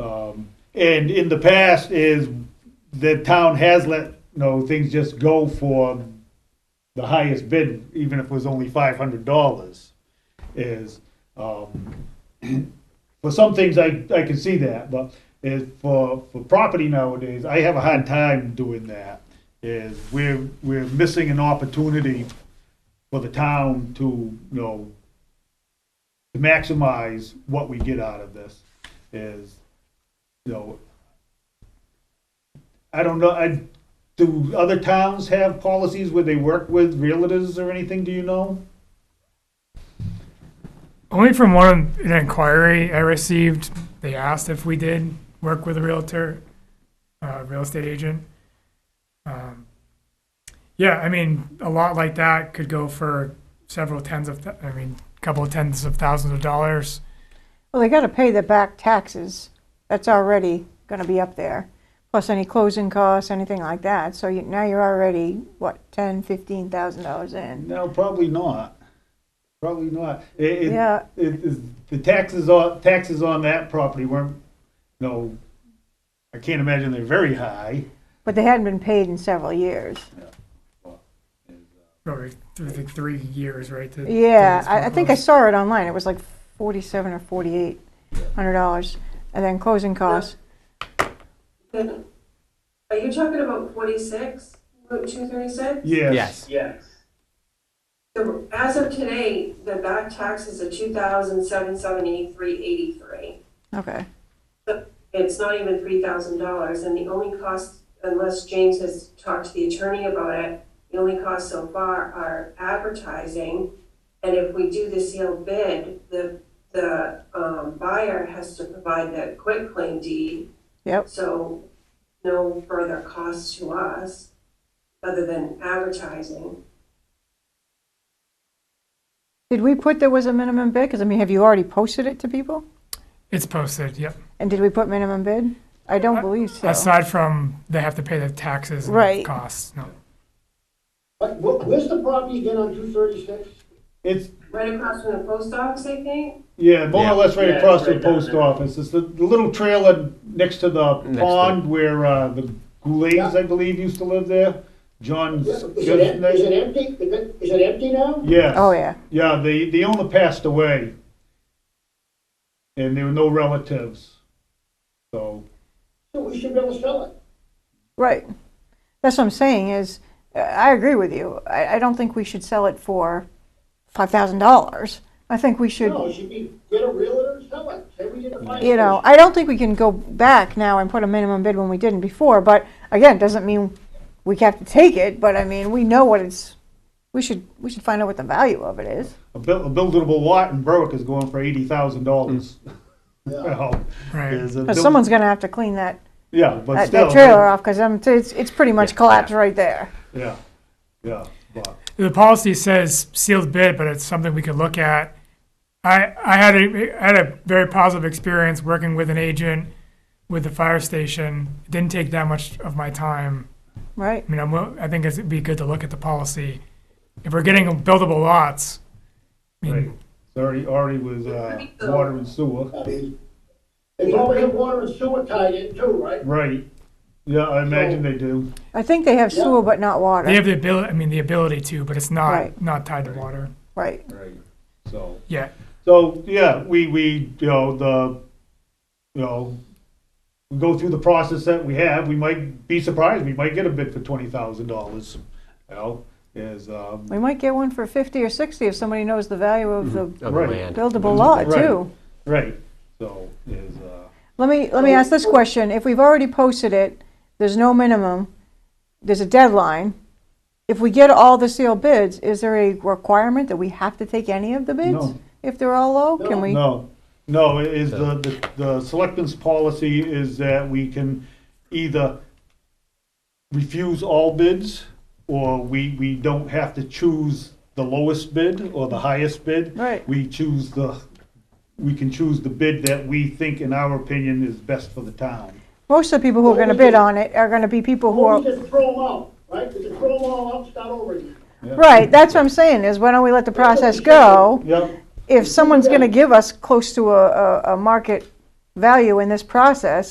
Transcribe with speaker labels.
Speaker 1: Um, and in the past is the town has let, you know, things just go for the highest bid, even if it was only five hundred dollars, is, um, for some things, I, I can see that, but is for, for property nowadays, I have a hard time doing that. Is we're, we're missing an opportunity for the town to, you know, to maximize what we get out of this is, you know, I don't know, I, do other towns have policies where they work with realtors or anything, do you know?
Speaker 2: Only from one an inquiry I received, they asked if we did work with a realtor, uh, real estate agent. Um, yeah, I mean, a lot like that could go for several tens of, th- I mean, a couple of tens of thousands of dollars.
Speaker 3: Well, they gotta pay the back taxes. That's already gonna be up there. Plus any closing costs, anything like that. So you, now you're already, what, ten, fifteen thousand dollars in?
Speaker 1: No, probably not. Probably not. It, it,
Speaker 3: Yeah.
Speaker 1: it- it's- the taxes on, taxes on that property weren't, no, I can't imagine they're very high.
Speaker 3: But they hadn't been paid in several years.
Speaker 2: Probably through the three years, right? to- to
Speaker 3: Yeah,
Speaker 2: this
Speaker 3: I, I think I
Speaker 2: process.
Speaker 3: saw it online. It was like forty-seven or forty-eight hundred dollars. And then closing costs.
Speaker 4: Are you talking about 46, Route 236?
Speaker 1: Yes.
Speaker 5: Yes.
Speaker 4: Yes. So as of today, the back taxes are 2,773.83.
Speaker 3: Okay.
Speaker 4: It's not even $3,000, and the only cost, unless James has talked to the attorney about it, the only costs so far are advertising, and if we do the sealed bid, the, the um, buyer has to provide the quitclaim deed,
Speaker 3: Yep.
Speaker 4: So no further cost to us other than advertising.
Speaker 3: Did we put there was a minimum bid? Because I mean, have you already posted it to people?
Speaker 2: It's posted, yep.
Speaker 3: And did we put minimum bid? I don't believe so.
Speaker 2: Aside from they have to pay the taxes and
Speaker 3: Right.
Speaker 2: costs, no.
Speaker 6: What, what, where's the property again on two thirty-six?
Speaker 1: It's,
Speaker 4: Right across from the post office, I think?
Speaker 1: yeah, more
Speaker 5: Yeah.
Speaker 1: or less right
Speaker 6: Yeah,
Speaker 1: across the
Speaker 6: right down
Speaker 1: post
Speaker 6: there.
Speaker 1: office. It's the, the little trailer next to the
Speaker 5: Next to-
Speaker 1: pond where uh, the Goulets,
Speaker 6: Yeah.
Speaker 1: I believe, used to live there. John's.
Speaker 6: Is it, em- is it empty? Is it, is it empty now?
Speaker 1: Yes.
Speaker 3: Oh, yeah.
Speaker 1: Yeah, the, the owner passed away. And there were no relatives. So,
Speaker 6: So we should be able to sell it.
Speaker 3: Right. That's what I'm saying is, uh, I agree with you. I, I don't think we should sell it for $5,000. I think we should,
Speaker 6: No, it should be, get a realtor and sell it. Say we did a fine.
Speaker 3: you know, I don't think we can go back now and put a minimum bid when we didn't before. But again, doesn't mean we have to take it, but I mean, we know what it's, we should, we should find out what the value of it is.
Speaker 1: a, buil- a buildable lot in Berwick is going for $80,000. Well,
Speaker 2: Right.
Speaker 1: is a
Speaker 3: Because
Speaker 1: buil-
Speaker 3: someone's going to have to clean that,
Speaker 1: Yeah, but
Speaker 3: that,
Speaker 1: still.
Speaker 3: that trailer off because it's, it's pretty much collapsed right there.
Speaker 1: Yeah, yeah, but,
Speaker 2: the policy says sealed bid, but it's something we could look at. I, I had a, I had a very positive experience working with an agent with the fire station. It didn't take that much of my time.
Speaker 3: Right?
Speaker 2: I mean, I'm, wi- I think it's- it'd be good to look at the policy. If we're getting buildable lots, I mean,
Speaker 1: right. It's already, already with, uh, water and sewer.
Speaker 6: I mean, They probably have water and sewer tied in too, right?
Speaker 1: Right. Yeah, I imagine they do.
Speaker 3: I think they have sewer but not water.
Speaker 2: they have the ability, I mean, the ability to, but it's not,
Speaker 3: Right.
Speaker 2: not tied to water
Speaker 3: right.
Speaker 1: Right. So.
Speaker 2: yet.
Speaker 1: So, yeah, we, we, you know, the, you know, we go through the process that we have, we might be surprised, we might get a bid for twenty thousand dollars, you know, is, um,
Speaker 3: We might get one for 50 or 60 if somebody knows the value of the
Speaker 5: Of the
Speaker 1: Right.
Speaker 5: land.
Speaker 3: buildable lot
Speaker 1: Right.
Speaker 3: too.
Speaker 1: right, so, is, uh,
Speaker 3: Let me, let me ask this question. If we've already posted it, there's no minimum, there's a deadline. If we get all the sealed bids, is there a requirement that we have to take any of the bids?
Speaker 1: No.
Speaker 3: If they're all low, can we?
Speaker 1: no, no, it is the, the, the selectmen's policy is that we can either refuse all bids, or we, we don't have to choose the lowest bid or the highest bid.
Speaker 3: Right.
Speaker 1: We choose the, we can choose the bid that we think, in our opinion, is best for the town.
Speaker 3: Most of the people who are gonna bid on it are gonna be people who
Speaker 6: Or
Speaker 3: are,
Speaker 6: we just throw them out, right? We just throw them all out, start over again.
Speaker 3: right, that's what I'm saying, is why don't we let the process go?
Speaker 1: Yep,
Speaker 3: if someone's gonna give us close to a, a, a market value in this process,